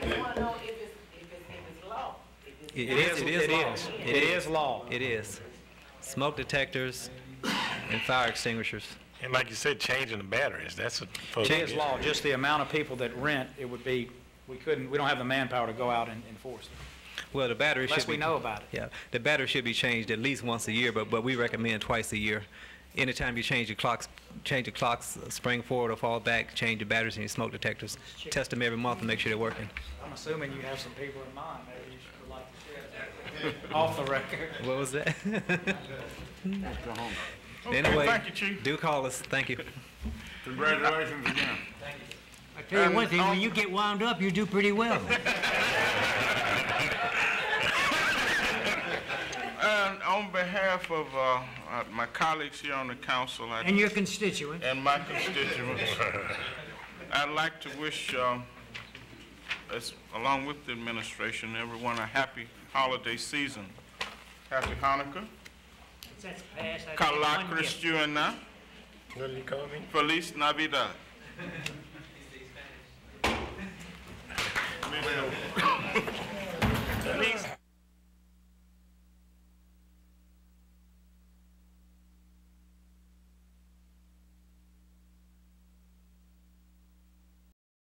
It is, it is law. It is law. It is. Smoke detectors and fire extinguishers. And like you said, changing the batteries, that's a. It is law, just the amount of people that rent, it would be, we couldn't, we don't have the manpower to go out and enforce it, Well, the battery should be. unless we know about it. Yeah, the battery should be changed at least once a year, but, but we recommend twice a year. Anytime you change your clocks, change your clocks, uh, spring forward or fall back, change your batteries and your smoke detectors. Test them every month and make sure they're working. I'm assuming you have some people in mind, maybe you should would like to share that. Off the record. What was that? Anyway, thank you, Chief. Do call us, thank you. Congratulations again. I tell you one thing, when you get wound up, you do pretty well. And on behalf of uh, uh, my colleagues here on the council I- And your constituents. and my constituents, I'd like to wish, um, as- along with the administration, everyone a happy holiday season. Happy Hanukkah, That's past. I take one Kala gift. Kristuna, What did you call me? Feliz Navidad.